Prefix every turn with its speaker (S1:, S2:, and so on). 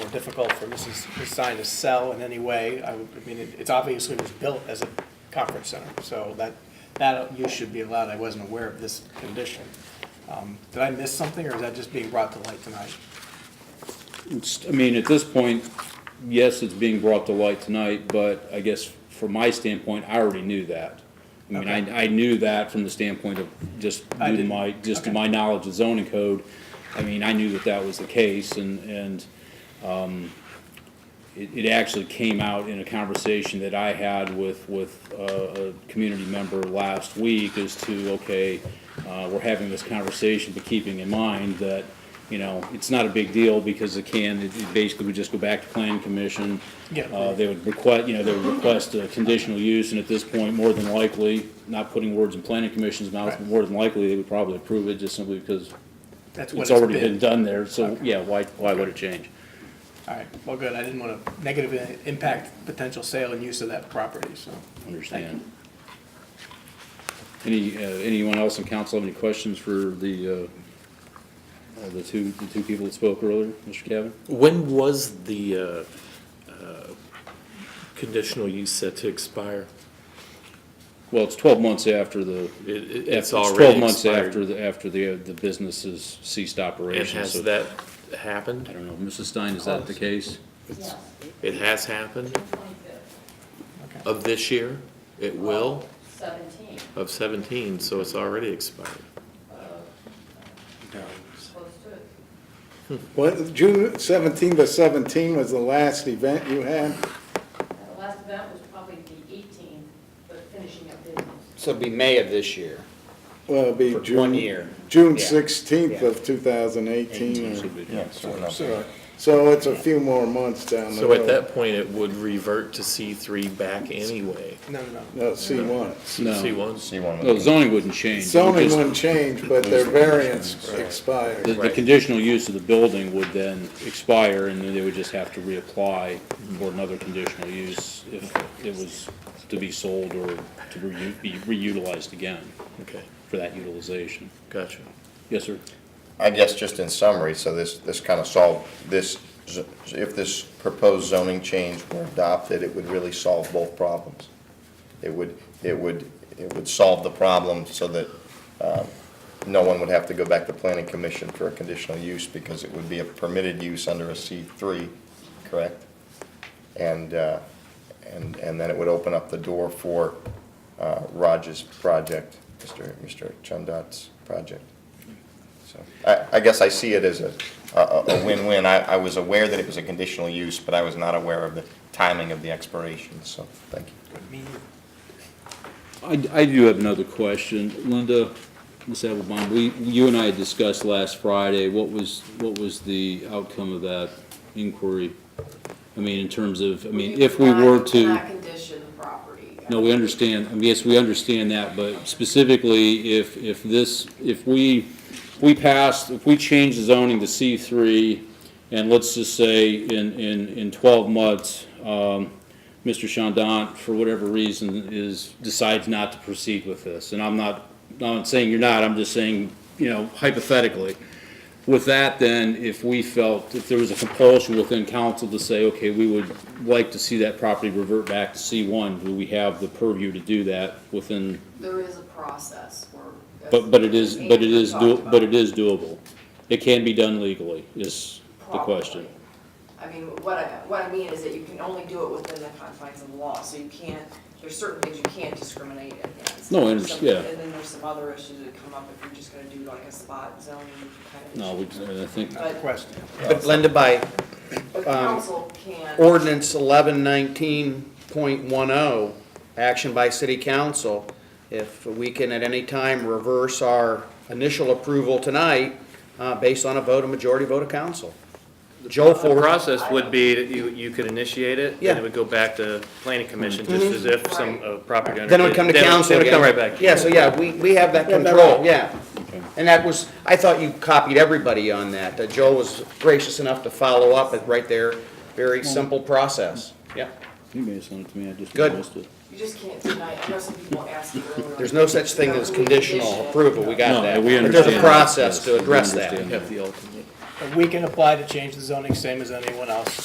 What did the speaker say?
S1: difficult for Mrs. his sign to sell in any way. I would, I mean, it- it's obviously was built as a conference center, so that, that use should be allowed. I wasn't aware of this condition. Um, Did I miss something, or is that just being brought to light tonight?
S2: It's, I mean, at this point, yes, it's being brought to light tonight, but I guess from my standpoint, I already knew that. I mean, I, I knew that from the standpoint of just
S1: I
S2: due to
S1: didn't.
S2: my, just to
S1: Okay.
S2: my knowledge of zoning code. I mean, I knew that that was the case and, and, um, it, it actually came out in a conversation that I had with, with, uh, a community member last week as to, okay, uh, we're having this conversation, but keeping in mind that, you know, it's not a big deal because it can, it it basically would just go back to planning commission.
S1: Yeah.
S2: Uh, they would request, you know, they would request a conditional use, and at this point, more than likely, not putting words in planning commission's mouth, but
S1: Right.
S2: more than likely, they would probably approve it just simply because
S1: That's what
S2: it's already
S1: been.
S2: been done there, so, yeah, why, why would it change?
S1: All right, well, good, I didn't want to negatively impact potential sale and use of that property, so.
S2: Understand. Any, uh, anyone else in council have any questions for the, uh, uh, the two, the two people that spoke earlier, Mr. Cavan?
S3: When was the uh, uh, conditional use set to expire?
S2: Well, it's twelve months after the.
S3: It- it- It's
S2: Twelve
S3: already
S2: months after
S3: expired.
S2: the, after the, uh, the business has ceased
S3: And
S2: operations. so-
S3: has that
S2: I
S3: happened?
S2: don't know, Mrs. Stein, is that the case?
S4: Yes,
S3: It has happened
S4: twenty-fifth,
S3: of this year? It will
S4: seventeen,
S3: of 17, so it's already expired.
S4: close to it.
S5: What, June seventeenth to seventeen was the last event you had?
S4: Uh, The last event was probably the eighteenth, but finishing up business.
S6: So it'll be May of this year,
S5: Well, it'd be
S6: for
S5: June.
S6: one year.
S5: June
S6: Yeah.
S5: sixteenth
S6: Yeah.
S5: of two thousand eighteen.
S2: Should be.
S5: So so it's a few more months down the
S3: So
S5: road.
S3: at that point, it would revert to C3 back anyway.
S1: No, no, no.
S5: No, C one.
S2: No,
S3: C1?
S2: no, zoning wouldn't change. It would
S5: Zoning
S2: just-
S5: wouldn't change, but their variance expired.
S2: The, the
S3: Right.
S2: conditional use of the building would then expire, and then they would just have to reapply for another conditional use if it was to be sold or to reu- be reutilized again
S3: Okay,
S2: for that utilization.
S3: gotcha.
S2: Yes, sir?
S7: I guess just in summary, so this, this kind of solved, this, z- if this proposed zoning change were adopted, it would really solve both problems. It would, it would, it would solve the problem so that um, no one would have to go back to planning commission for a conditional use because it would be a permitted use under a C3, correct? And, uh, and, and then it would open up the door for uh, Raj's project, Mr. Mr. Chundat's project. So, I, I guess I see it as a, a a win-win. I, I was aware that it was a conditional use, but I was not aware of the timing of the expiration, so, thank you.
S2: I, I do have another question. Linda, Ms. Abelbaum, we, you and I had discussed last Friday, what was, what was the outcome of that inquiry? I mean, in terms of, I mean, if we were to.
S8: Not condition the property.
S2: No, we understand, I mean, yes, we understand that, but specifically, if, if this, if we, we passed, if we change the zoning to C three, and let's just say in, in, in twelve months, um, Mr. Chandon, for whatever reason, is, decides not to proceed with this, and I'm not, I'm not saying you're not, I'm just saying, you know, hypothetically. With that, then, if we felt, if there was a compulsion within council to say, okay, we would like to see that property revert back to C1, do we have the purview to do that within,
S8: There is a process where.
S2: but, but it is, but it is,
S8: Andrew
S2: do-
S8: talked
S2: but it
S8: about
S2: is doable? It can be done legally, is the question.
S8: Probably. I mean, what I, what I mean is that you can only do it within the confines of the law, so you can't, there's certain things you can't discriminate against.
S2: No, I
S8: There's
S2: underst-
S8: some-
S2: yeah.
S8: And then there's some other issues that come up if you're just gonna do like a spot zoning kind of.
S2: No,
S8: issue.
S2: we, I think,
S8: But-
S1: Question.
S6: But Linda, by
S8: But
S6: Um,
S8: council can.
S6: ordinance eleven nineteen point one oh, action by city council, if we can at any time reverse our initial approval tonight, uh, based on a vote, a majority vote of council. Joe
S9: The
S6: for
S9: process would be, that you, you could initiate it, then
S6: Yeah.
S9: it would go back to planning commission, just
S3: Mm-hmm.
S9: as if some uh, property owner.
S6: Then it would come to
S9: Then
S6: council
S9: Then it
S6: again.
S9: would come right back.
S6: Yeah, so yeah, we, we have that control, yeah. And that was, I thought you copied everybody on that. Uh, Joe was gracious enough to follow up it right there. Very simple process. Yeah.
S2: you may have sent it to me, I just
S6: Good.
S2: missed it.
S8: You just can't deny, it. I know some people ask you earlier.
S6: There's no such thing as conditional approval. We got
S2: No,
S6: that.
S2: we
S6: But there's a
S2: understand that,
S6: process
S2: yes,
S6: to
S2: we
S6: address
S2: understand
S6: that.
S2: that.
S3: Have the ultimate.
S1: We can apply to change the zoning same as anyone else.